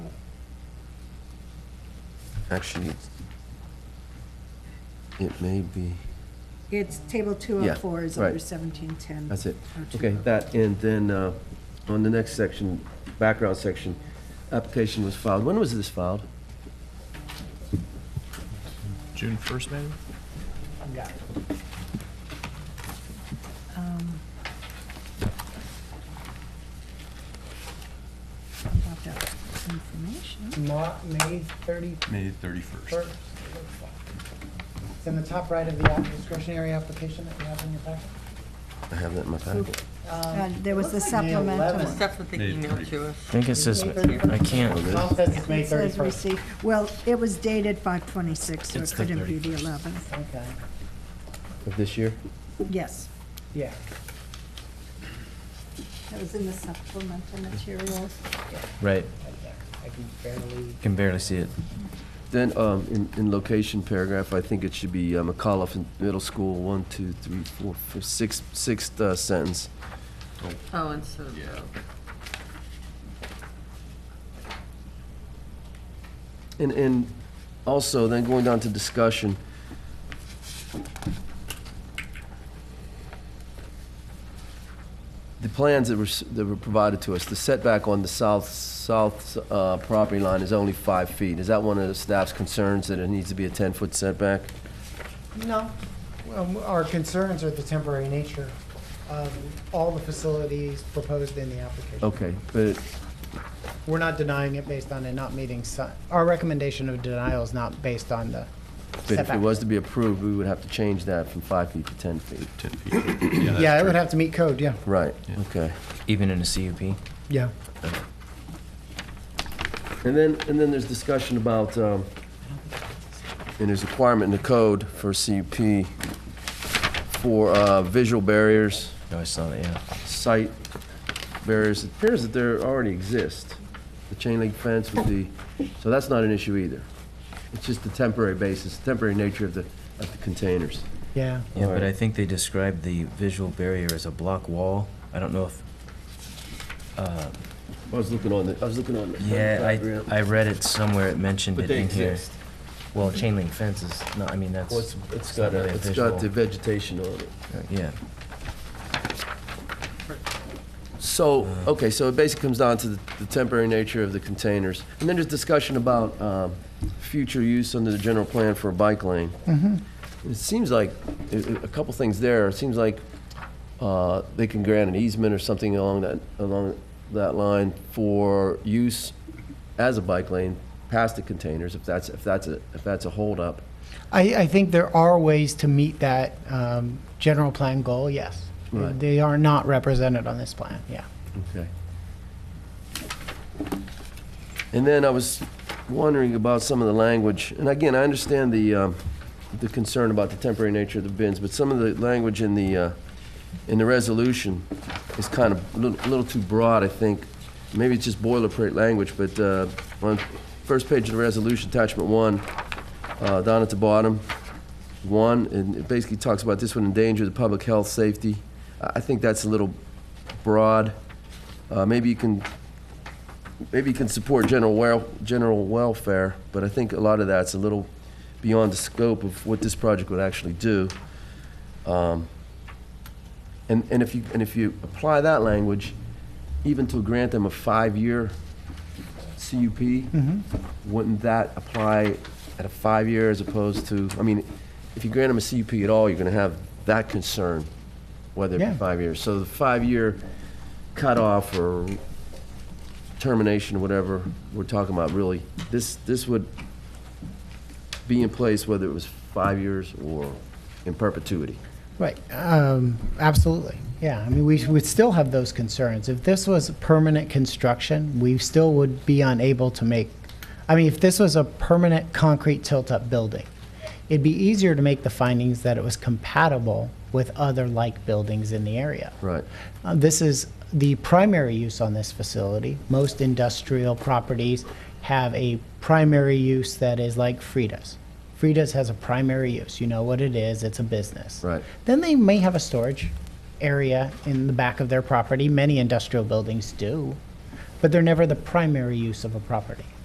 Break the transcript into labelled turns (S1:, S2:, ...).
S1: Actually, it may be,
S2: It's table two oh four is
S1: Yeah, right.
S2: under seventeen ten. Oh,
S1: that's it. Okay, that, and then uh, on the next section, background section, application was filed. When was this filed?
S3: June first, maybe?
S2: Um, Information.
S4: Not May thirty
S3: May thirty-first.
S4: first. It's in the top right of the app- discretionary application that you have in your packet.
S1: I have that in my packet.
S2: Uh,
S4: Um,
S2: There was the
S4: looks like May
S2: supplemental.
S4: 11th.
S2: one.
S5: Stuff with the
S3: May
S5: email
S3: 30.
S5: to us.
S6: I think it says, I
S1: Oh,
S6: can't,
S1: this-
S4: Tom says it's May
S2: It says
S4: thirty-first.
S2: receipt. Well, it was dated five twenty-six, so it
S6: It's the
S2: couldn't be the eleventh.
S4: Okay,
S1: Of this year?
S2: Yes.
S4: yeah.
S2: That was in the supplemental materials.
S4: right
S6: right,
S4: there. I can barely,
S6: can barely see it.
S1: Then, um, in, in location paragraph, I think it should be uh, McAuliffe Middle School, one, two, three, four, fifth, sixth, sixth uh, sentence.
S5: Oh, and so,
S3: Yeah.
S1: And, and also, then going down to discussion. The plans that were, s- that were provided to us, the setback on the south, south uh, property line is only five feet. Is that one of the staff's concerns, that it needs to be a 10-foot setback?
S4: no. Um, Our concerns are the temporary nature of all the facilities proposed in the application.
S1: Okay, but
S4: We're not denying it based on it not meeting, si- our recommendation of denial is not based on the
S1: but if it
S4: setback.
S1: was to be approved, we would have to change that from five feet to 10 feet.
S3: Ten feet. Yeah, that's
S4: Yeah, it
S3: true.
S4: would have to meet code, yeah.
S1: Right,
S3: Yeah.
S1: okay.
S6: Even in a CUP?
S4: Yeah.
S1: And then, and then there's discussion about, um, and there's requirement in the code for CUP for uh, visual barriers,
S6: No, I saw that, yeah.
S1: sight barriers. It appears that there already exist. The chain link fence with the, so that's not an issue either. It's just the temporary basis, temporary nature of the, of the containers.
S4: Yeah.
S6: Yeah, but
S1: Alright.
S6: I think they described the visual barrier as a block wall. I don't know if,
S1: I was looking on the, I was looking on the.
S6: yeah, I, I read it somewhere, it mentioned
S3: But
S6: it
S3: they
S6: in here.
S3: exist.
S6: Well, chain link fence is, no, I mean,
S1: Well, it's,
S6: that's,
S1: it's got, a- it's got the vegetation on it.
S6: yeah.
S1: So, okay, so it basically comes down to the the temporary nature of the containers. And then there's discussion about um, future use under the general plan for a bike lane. It seems like, i- i- a couple things there, it seems like uh, they can grant an easement or something along that, along that line for use as a bike lane past the containers, if that's, if that's, a if that's a holdup.
S4: I, I think there are ways to meet that um, general plan goal, yes.
S1: Right.
S4: They are not represented on this plan, yeah.
S1: Okay. And then I was wondering about some of the language, and again, I understand the, um, the concern about the temporary nature of the bins, but some of the language in the, uh, in the resolution is kind of a little, little too broad, I think. Maybe it's just boilerplate language, but uh, on first page of the resolution, attachment one, uh, down at the bottom, one, and it basically talks about this would endanger the public health, safety. I I think that's a little broad. Uh, Maybe you can, maybe you can support general wel, general welfare, but I think a lot of that's a little beyond the scope of what this project would actually do. Um, And, and if you, and if you apply that language, even to grant them a five-year CUP, wouldn't that apply at a five-year as opposed to, I mean, if you grant them a CUP at all, you're gonna have that concern, whether it be
S4: Yeah.
S1: five years. So the five-year cutoff or termination, or whatever we're talking about, really, this, this would be in place whether it was five years or in perpetuity.
S4: Right, um, absolutely, yeah. I mean, we would still have those concerns. If this was permanent construction, we still would be unable to make, I mean, if this was a permanent concrete tilt-up building, it'd be easier to make the findings that it was compatible with other like buildings in the area.
S1: Right.
S4: Uh, This is the primary use on this facility. Most industrial properties have a primary use that is like Frida's. Frida's has a primary use. You know what it is, it's a business.
S1: Right.
S4: Then they may have a storage area in the back of their property. Many industrial buildings do, but they're never the primary use of a property.